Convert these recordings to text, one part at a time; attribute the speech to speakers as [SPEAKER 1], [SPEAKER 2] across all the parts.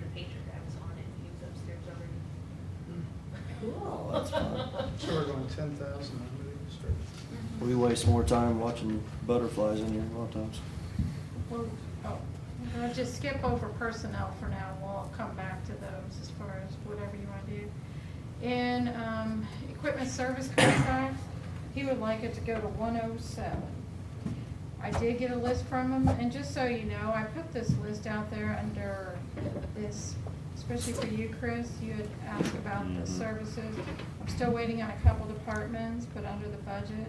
[SPEAKER 1] all that's fine.
[SPEAKER 2] So we're going ten thousand, I'm gonna start.
[SPEAKER 3] We waste more time watching butterflies in here a lot of times.
[SPEAKER 4] Well, oh, we're gonna just skip over personnel for now, we'll come back to those as far as whatever you wanna do. In, um, equipment service contract, he would like it to go to one oh seven. I did get a list from him, and just so you know, I put this list out there under this, especially for you, Chris, you had asked about the
[SPEAKER 3] Mhm.
[SPEAKER 4] services. I'm still waiting on a couple departments, but under the budget.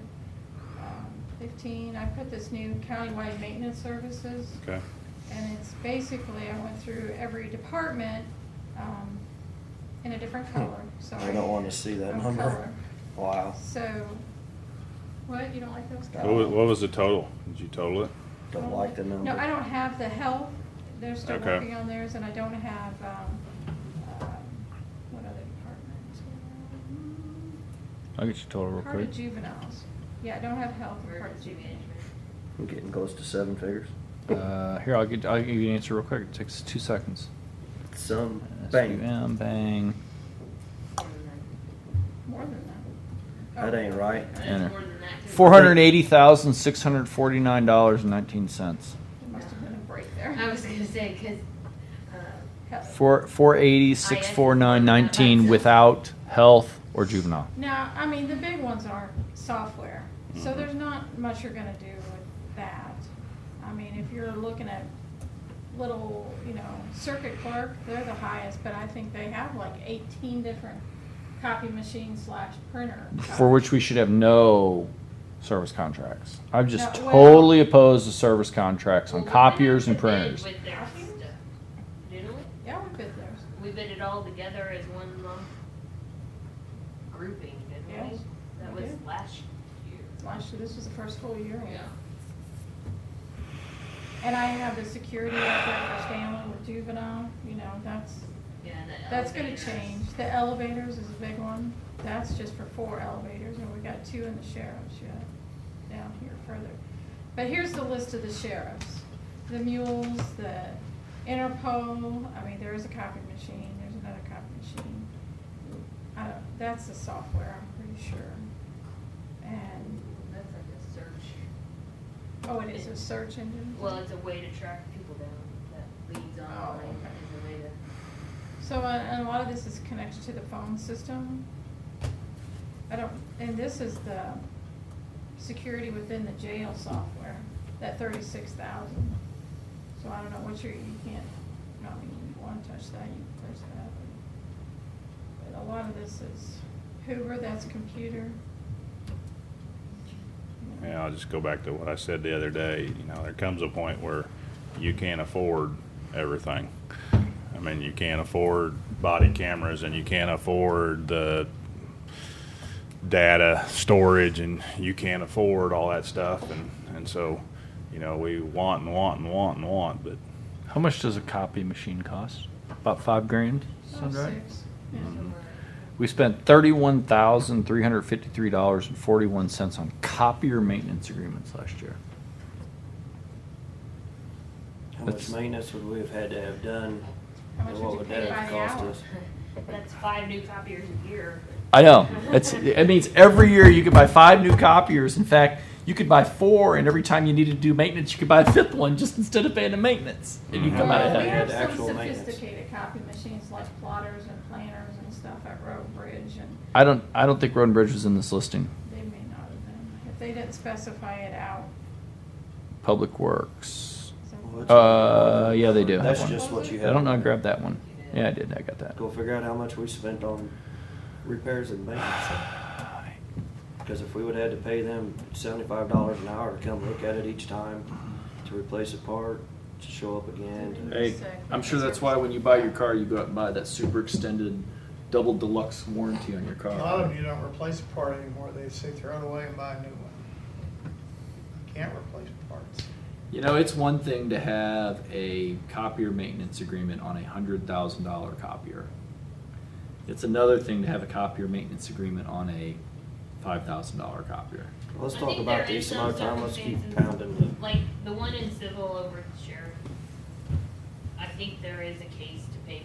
[SPEAKER 4] um, Fifteen, I put this new countywide maintenance services.
[SPEAKER 5] Okay.
[SPEAKER 4] And it's basically, I went through every department, um, in a
[SPEAKER 5] Hmm.
[SPEAKER 4] different color, sorry.
[SPEAKER 3] I don't want to see that
[SPEAKER 4] Of
[SPEAKER 3] number.
[SPEAKER 4] color.
[SPEAKER 3] Wow.
[SPEAKER 4] So, what, you don't like those
[SPEAKER 3] No.
[SPEAKER 5] What was,
[SPEAKER 4] colors?
[SPEAKER 5] what was the total? Did you total it?
[SPEAKER 3] Don't like the number.
[SPEAKER 4] No, I don't have the health, they're still
[SPEAKER 5] Okay.
[SPEAKER 4] working on theirs, and I don't have, um, um, what other department?
[SPEAKER 6] I'll get you
[SPEAKER 5] Oh,
[SPEAKER 6] total real
[SPEAKER 4] Part
[SPEAKER 6] quick.
[SPEAKER 4] of juveniles, yeah, I don't have health, part of
[SPEAKER 7] Emergency
[SPEAKER 4] juveniles.
[SPEAKER 7] management.
[SPEAKER 3] We're getting close to seven figures.
[SPEAKER 6] Uh, here, I'll get, I'll give you an answer real quick. It takes two seconds.
[SPEAKER 3] Some bang.
[SPEAKER 6] SUM, bang.
[SPEAKER 4] More than that.
[SPEAKER 3] That
[SPEAKER 4] Oh.
[SPEAKER 3] ain't right.
[SPEAKER 7] That's
[SPEAKER 6] Enter.
[SPEAKER 7] more than that, too.
[SPEAKER 6] Four hundred eighty thousand six hundred forty-nine dollars and nineteen cents.
[SPEAKER 4] There must have been a break there.
[SPEAKER 7] I was gonna say, cause, uh,
[SPEAKER 4] Health.
[SPEAKER 6] Four four eighty six four nine nineteen without health or juvenile.
[SPEAKER 4] Now, I mean, the big ones are software,
[SPEAKER 6] Mm-hmm.
[SPEAKER 4] so there's not much you're gonna do with that. I mean, if you're looking at little, you know, circuit clerk, they're the highest, but I think they have like eighteen different copy machines slash printer.
[SPEAKER 6] For which we should have no service contracts. I'm just
[SPEAKER 4] No, well-
[SPEAKER 6] totally opposed to service contracts
[SPEAKER 7] well,
[SPEAKER 6] on
[SPEAKER 7] we
[SPEAKER 6] copiers and
[SPEAKER 7] went out to bid
[SPEAKER 6] printers.
[SPEAKER 7] With their stuff, didn't we?
[SPEAKER 4] Yeah, we bid theirs.
[SPEAKER 7] We bid it all together as one lump grouping, didn't we?
[SPEAKER 4] Yes,
[SPEAKER 7] That
[SPEAKER 4] we
[SPEAKER 7] was
[SPEAKER 4] did.
[SPEAKER 7] last year.
[SPEAKER 4] Last year, this was the first full year. And I have the security out there for Stanley with juvenile, you know, that's,
[SPEAKER 7] Yeah, that
[SPEAKER 4] That's gonna
[SPEAKER 7] elevator.
[SPEAKER 4] change. The elevators is a big one. That's just for four elevators, and we got two in the sheriff's yet, down here further. But here's the list of the sheriffs. The mules, the Interpol, I mean, there is a copy machine, there's another copy machine. I don't, that's the software, I'm pretty sure. And,
[SPEAKER 7] That's like a search.
[SPEAKER 4] oh, it is a search engine?
[SPEAKER 7] Well, it's a way to track people down that leads
[SPEAKER 3] Oh,
[SPEAKER 7] online,
[SPEAKER 4] okay.
[SPEAKER 7] is a way to.
[SPEAKER 4] So, uh, and a lot of this is connected to the phone system. I don't, and this is the security within the jail software, that thirty-six thousand. So I don't know what you're, you can't, I mean, if you wanna touch that, you can touch that. But a lot of this is Hoover, that's computer.
[SPEAKER 5] Yeah, I'll just go back to what I said the other day, you know, there comes a point where you can't afford everything. I mean, you can't afford body cameras and you can't afford the data storage and you can't afford all that stuff and, and so, you know, we want and want and want and want, but
[SPEAKER 6] How much does a copy machine cost? About five grand. sound right?
[SPEAKER 4] Oh, Six, yeah.
[SPEAKER 6] We spent thirty-one thousand three hundred fifty-three dollars and forty-one cents on copier maintenance agreements last year.
[SPEAKER 3] How much
[SPEAKER 6] That's-
[SPEAKER 3] maintenance would we have had to have done?
[SPEAKER 4] How much
[SPEAKER 3] and
[SPEAKER 4] would
[SPEAKER 3] what
[SPEAKER 4] you
[SPEAKER 3] would
[SPEAKER 4] pay
[SPEAKER 3] that have
[SPEAKER 4] by the
[SPEAKER 3] cost
[SPEAKER 4] hour?
[SPEAKER 3] us?
[SPEAKER 7] That's five new copiers a year.
[SPEAKER 6] I know. It's, it means every year you could buy five new copiers. In fact, you could buy four, and every time you needed to do maintenance, you could buy a fifth one just instead of paying the maintenance. And you come out
[SPEAKER 4] Well,
[SPEAKER 3] Yeah,
[SPEAKER 4] we have
[SPEAKER 6] ahead.
[SPEAKER 3] the
[SPEAKER 4] some
[SPEAKER 3] actual maintenance.
[SPEAKER 4] sophisticated copy machines like plotters and planners and stuff at Road Bridge and
[SPEAKER 6] I don't. I don't think Road and Bridge was in this listing.
[SPEAKER 4] they may not have been, if they didn't specify it out.
[SPEAKER 6] Public Works.
[SPEAKER 4] so-
[SPEAKER 3] Well, it's-
[SPEAKER 6] Uh, yeah, they do. have
[SPEAKER 3] That's
[SPEAKER 6] one.
[SPEAKER 3] just what you
[SPEAKER 6] I
[SPEAKER 3] have.
[SPEAKER 6] don't know. I grabbed that one. Yeah, I did. I got that.
[SPEAKER 3] Go figure out how much we spent on repairs and maintenance. Because if we would have had to pay them seventy-five dollars an hour to come look at it each time, to replace a part, to show up again. to-
[SPEAKER 4] Hey, I'm sure that's why when you buy your car,
[SPEAKER 6] you go out and buy that super extended, double deluxe warranty on your
[SPEAKER 2] A lot of them, you don't replace a part anymore, they say throw it away and buy a new one. You Can't replace parts.
[SPEAKER 6] You know, it's one thing to have a copier maintenance agreement on a hundred thousand dollar copier. It's another thing to have a copier maintenance agreement on a five thousand dollar copier.
[SPEAKER 3] Let's
[SPEAKER 7] I
[SPEAKER 3] talk
[SPEAKER 7] think
[SPEAKER 3] about
[SPEAKER 7] there is
[SPEAKER 3] these some other
[SPEAKER 7] some
[SPEAKER 3] time, let's keep
[SPEAKER 7] circumstances,
[SPEAKER 3] pounding
[SPEAKER 7] Like the one in civil over at the sheriff. I think there is a case